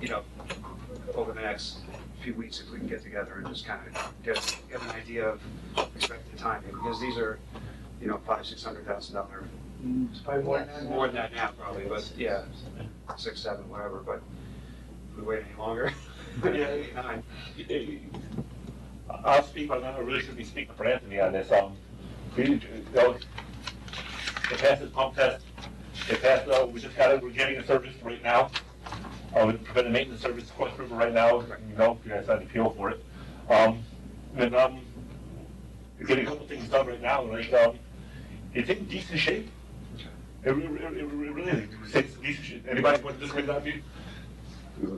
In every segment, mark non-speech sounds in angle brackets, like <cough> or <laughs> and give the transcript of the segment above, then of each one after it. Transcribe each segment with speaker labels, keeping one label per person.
Speaker 1: you know, over the next few weeks, if we can get together and just kind of get, get an idea of expected timing, because these are, you know, five, six hundred thousand dollar,
Speaker 2: Mm,
Speaker 3: It's probably more than that.
Speaker 1: more than that now probably, but yeah, six, seven, whatever, but if we wait any longer, <laughs> yeah, eight, nine,
Speaker 4: I'll speak, on that. I really should be speaking for Anthony on this, um, we, those, they passed this pump test, they passed, uh, we just got it, we're getting a service right now. Uh, we're providing maintenance service across the river right now, you know, you guys had an appeal for it. Um, and, um, we're getting a couple things done right now, like, um, it's in decent shape. It re- re- re- re- really, is. it's in decent shape, anybody want to disagree with that view?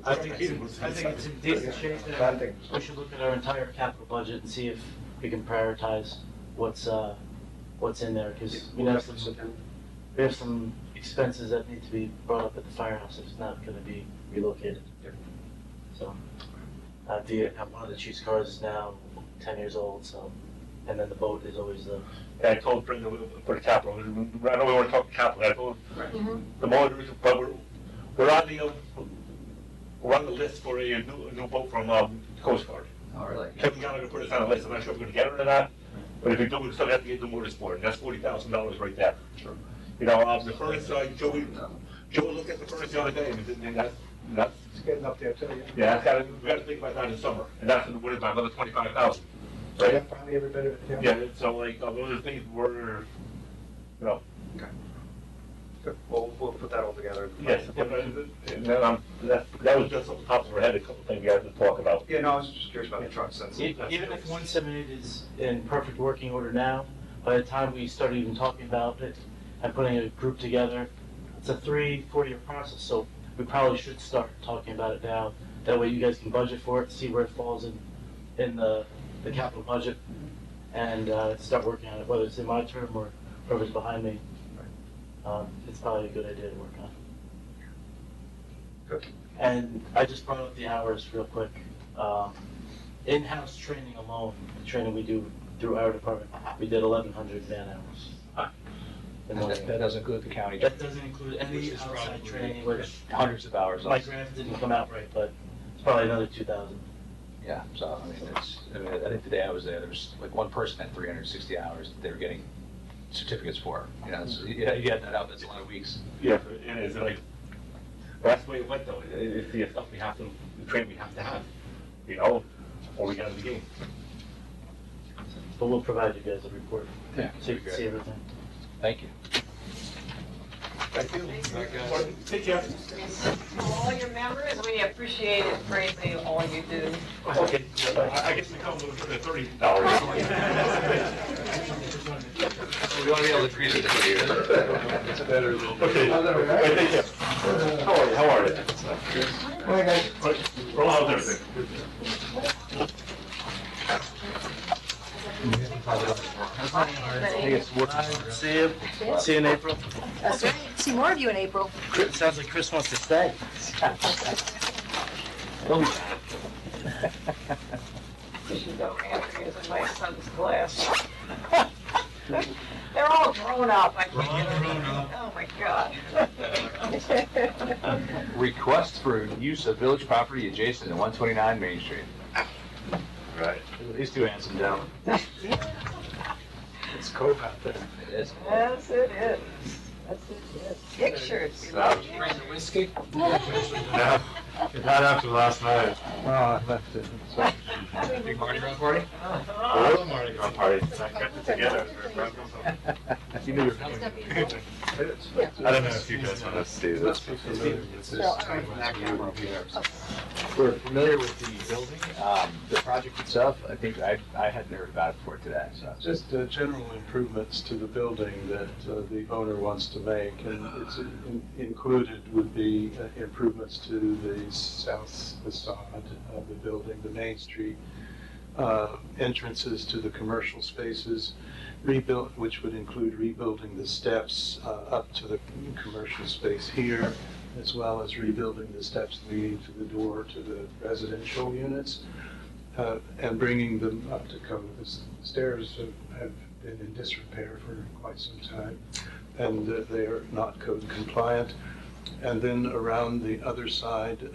Speaker 3: I think, it- I think it's in decent shape, and we should look at our entire capital budget and see if we can prioritize what's, uh, what's in there, because we
Speaker 1: we'll
Speaker 3: have
Speaker 1: have to sit
Speaker 3: some,
Speaker 1: down.
Speaker 3: we have some expenses that need to be brought up at the firehouse if it's not gonna be relocated.
Speaker 1: Yep.
Speaker 3: So, uh, the, uh, one of the chief's cars is now ten years old, so, and then the boat is always the,
Speaker 4: I told Brenda we- for the capital, I know we want to talk capital, I told
Speaker 1: Right.
Speaker 4: the motors, but we're, we're on the, um, we're on the list for a new, a new boat from, um, Coast Guard.
Speaker 5: Oh, really?
Speaker 4: Kevin Gallagher put us on the list, I'm not sure if we're gonna get it or not, but if we do, we still have to get the motors for it, and that's forty thousand dollars right there. You know, um, the furnace, uh, Joey, Joey looked at the furnace the other day, and it- and that's, that's,
Speaker 2: It's getting up there too, yeah.
Speaker 4: yeah, that's gotta, we gotta think about that in summer, and that's in the winter by another twenty-five thousand, right?
Speaker 2: Yeah, Probably every bit of it, yeah.
Speaker 4: Yeah, so like, uh, those are things we're, you know,
Speaker 1: Good. We'll, we'll put that all together.
Speaker 4: yes, but, uh, and then, um, that, that was just off the top of our head, a couple things we had to talk about.
Speaker 1: Yeah, no, I was just curious about the trucks, that's.
Speaker 3: E-
Speaker 1: that's-
Speaker 3: Even if one seventy-eight is in perfect working order now, by the time we start even talking about it and putting a group together, it's a three, four-year process, so we probably should start talking about it now. That way you guys can budget for it, see where it falls in, in the, the capital budget, and, uh, start working on it, whether it's in my term or whoever's behind me. Um, it's probably a good idea to work on.
Speaker 1: Good.
Speaker 3: And I just brought up the hours real quick. Um, in-house training alone, the training we do through our department, we did eleven hundred man hours. in one
Speaker 5: That that
Speaker 3: year.
Speaker 5: doesn't include the county,
Speaker 3: That doesn't include any outside training, which
Speaker 5: hundreds of hours.
Speaker 3: my graph didn't come out right, but it's probably another two thousand.
Speaker 5: Yeah, so, I mean, it's, I mean, I think the day I was there, there was like one person had three hundred and sixty hours that they were getting certificates for. You know, it's- yeah, you add that up, that's a lot of weeks.
Speaker 4: Yeah, and it's like, that's the way it went though, It- it's the stuff we have to, the training we have to have, you know, or we got to the game.
Speaker 3: But we'll provide you guys a report,
Speaker 5: Yeah.
Speaker 3: so you can see everything.
Speaker 5: Thank you.
Speaker 4: Thank you. Take care.
Speaker 6: To all your members, we appreciate it greatly, all you do.
Speaker 4: Okay, I I guess we come with the thirty <laughs> dollars.
Speaker 5: We want to be able to treat
Speaker 1: <laughs>
Speaker 5: it It's better than.
Speaker 4: Okay, Okay, take care. How are you, how are you? Right, Roll out everything.
Speaker 6: Thank
Speaker 3: See you, see you in April.
Speaker 7: That's right. See more of you in April.
Speaker 3: Chris- Sounds like Chris wants to stay.
Speaker 6: You should know Anthony is in my son's class. <laughs> They're all grown up, I
Speaker 4: We're all
Speaker 6: can't.
Speaker 4: grown up.
Speaker 6: Oh, my God. <laughs>
Speaker 5: Request for use of village property adjacent to one twenty-nine Main Street.
Speaker 4: Right.
Speaker 5: These two handsome gentlemen.
Speaker 4: <laughs>
Speaker 2: It's cold out there.
Speaker 5: It's-
Speaker 6: Yes, it is. That's it, yes. Pictures, we love pictures.
Speaker 5: whiskey?
Speaker 4: Not after last night.
Speaker 2: Oh, I left it.
Speaker 5: Big Mardi Gras party?
Speaker 4: A little Mardi Gras party. I kept it together.
Speaker 7: <laughs>
Speaker 5: You knew you were
Speaker 7: It's
Speaker 5: coming.
Speaker 7: gonna be in April.
Speaker 4: I don't know if you guys want to see this.
Speaker 5: We're familiar with the building, um, the project itself. I think I, I hadn't heard about it before today, so.
Speaker 2: Just uh, general improvements to the building that uh, the owner wants to make, and it's in- included would be uh, improvements to the south facade of the building, the Main Street, uh, entrances to the commercial spaces, rebuilt, which would include rebuilding the steps uh, up to the commercial space here, as well as rebuilding the steps leading to the door to the residential units uh, and bringing them up to code. The s- stairs have- have been in disrepair for quite some time, and uh, they are not code compliant. And then around the other side